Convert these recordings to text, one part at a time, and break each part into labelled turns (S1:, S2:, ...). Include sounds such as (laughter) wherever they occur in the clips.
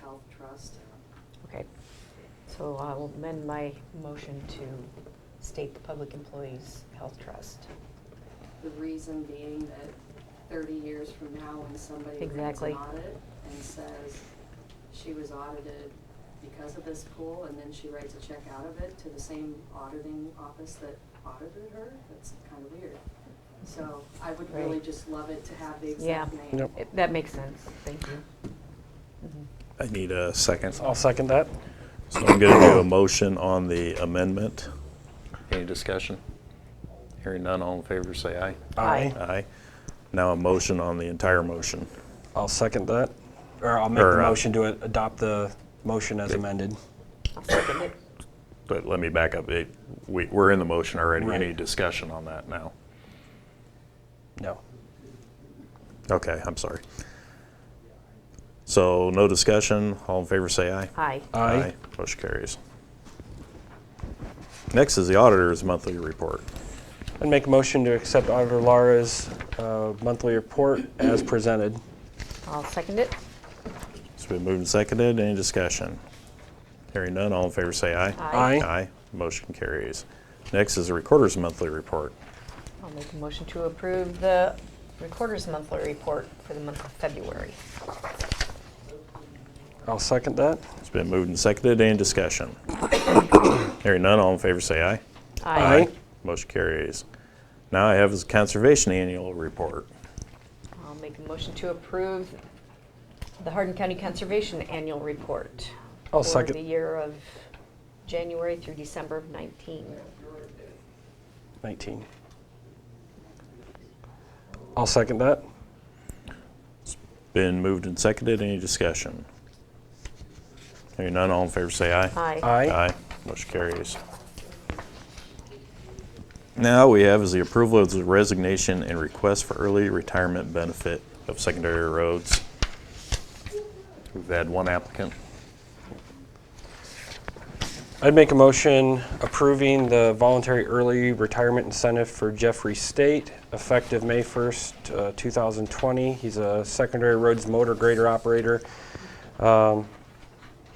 S1: Health Trust.
S2: Okay, so I will amend my motion to state the Public Employees Health Trust.
S1: The reason being that thirty years from now, when somebody runs
S2: Exactly.
S1: an audit and says, she was audited because of this pool, and then she writes a check out of it to the same auditing office that audited her, that's kind of weird. So I would really
S2: Right.
S1: just love it to have the
S2: Yeah.
S1: exact name.
S3: Yep.
S2: It- That makes sense, thank you. Mhm.
S4: I need a second.
S3: I'll second that.
S4: So I'm going to do a motion on the amendment.
S5: Any discussion? Hearing none, all in favor, say aye.
S2: Aye.
S4: Aye. Now a motion on the entire motion.
S3: I'll second that, or I'll make the
S4: Or, uh,
S3: motion to a- adopt the motion as amended.
S2: I'll second it.
S4: But let me back up. It- We, we're in the motion already. We
S3: Right.
S4: need discussion on that now.
S3: No.
S4: Okay, I'm sorry. So no discussion. All in favor, say aye.
S2: Aye.
S3: Aye.
S4: Motion carries. Next is the auditor's monthly report.
S3: I'd make a motion to accept Auditor Lara's uh, monthly report as presented.
S2: I'll second it.
S4: It's been moved and seconded. Any discussion? Hearing none, all in favor say aye.
S3: Aye.
S4: Aye. Motion carries. Next is the Recorder's Monthly Report.
S2: I'll make a motion to approve the Recorder's Monthly Report for the month of February.
S3: I'll second that.
S4: It's been moved and seconded. Any discussion? (coughs) Hearing none, all in favor say aye.
S3: Aye.
S4: Motion carries. Now I have is Conservation Annual Report.
S2: I'll make a motion to approve the Hardin County Conservation Annual Report.
S3: I'll
S2: For
S3: second.
S2: the year of January through December of 19.
S3: 19. I'll second that.
S4: Been moved and seconded. Any discussion? Hearing none, all in favor say aye.
S2: Aye.
S3: Aye.
S4: Aye. Motion carries. Now we have is the approval of the resignation and request for early retirement benefit of secondary roads.
S5: We've had one applicant.
S3: I'd make a motion approving the voluntary early retirement incentive for Jeffrey State effective May 1st, uh, 2020. He's a secondary roads motor grader operator. Um,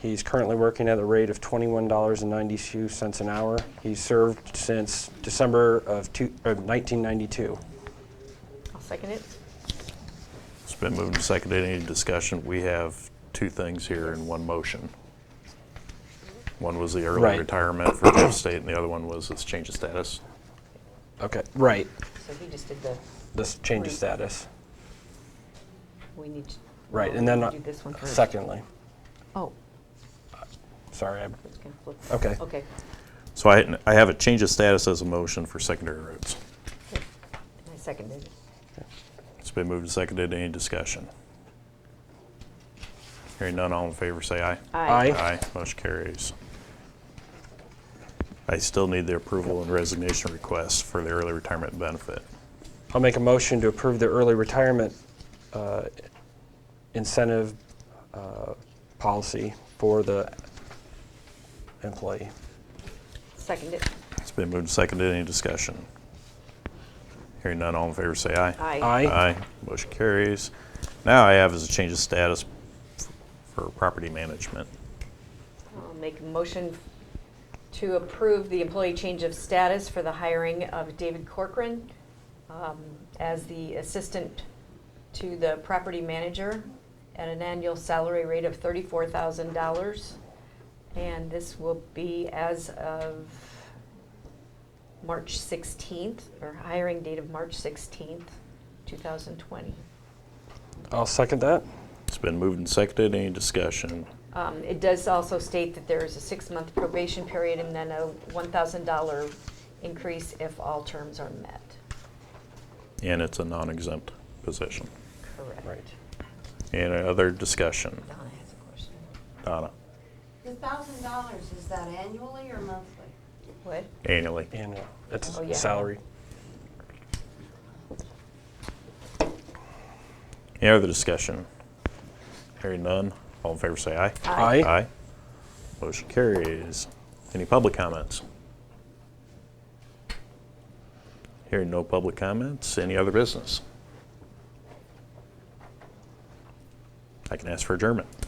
S3: He's currently working at a rate of $21.92 an hour. He's served since December of two- of 1992.
S2: I'll second it.
S4: It's been moved and seconded. Any discussion? We have two things here in one motion. One was the early
S3: Right.
S4: retirement for Jeff State, and the other one was this change of status.
S3: Okay, right.
S2: So he just did the,
S3: This change of
S2: Right.
S3: status.
S2: we need to.
S3: Right,
S2: no,
S3: and then,
S2: we
S3: uh,
S2: Do this one first.
S3: secondly,
S2: Oh,
S3: sorry, I-
S2: it's gonna flip.
S3: Okay.
S2: Okay.
S4: So I, I have a change of status as a motion for secondary roads.
S2: Good. And I seconded it.
S4: It's been moved and seconded. Any discussion? Hearing none, all in favor say aye.
S3: Aye.
S4: Aye, motion carries. I still need the approval and resignation request for the early retirement benefit.
S3: I'll make a motion to approve the early retirement uh, incentive uh, policy for the employee.
S2: Seconded it.
S4: It's been moved and seconded. Any discussion? Hearing none, all in favor say aye.
S2: Aye.
S3: Aye.
S4: Aye, motion carries. Now I have is a change of status f- for property management.
S2: I'll make a motion to approve the employee change of status for the hiring of David Corcoran um, as the assistant to the property manager at an annual salary rate of $34,000. And this will be as of March 16th, or hiring date of March 16th, 2020.
S3: I'll second that.
S4: It's been moved and seconded. Any discussion?
S2: Um, It does also state that there is a six-month probation period and then a $1,000 increase if all terms are met.
S4: And it's a non-exempt position.
S2: Correct.
S3: Right.
S4: Any other discussion?
S2: Donna has a question.
S4: Donna,
S6: The thousand dollars, is that annually or monthly?
S2: What?
S4: annually.
S3: And it's
S2: Oh, yeah.
S3: salary.
S4: Any other discussion? Hearing none, all in favor say aye.
S3: Aye.
S4: Aye. Motion carries. Any public comments? Hearing no public comments, any other business? I can ask for adjournment.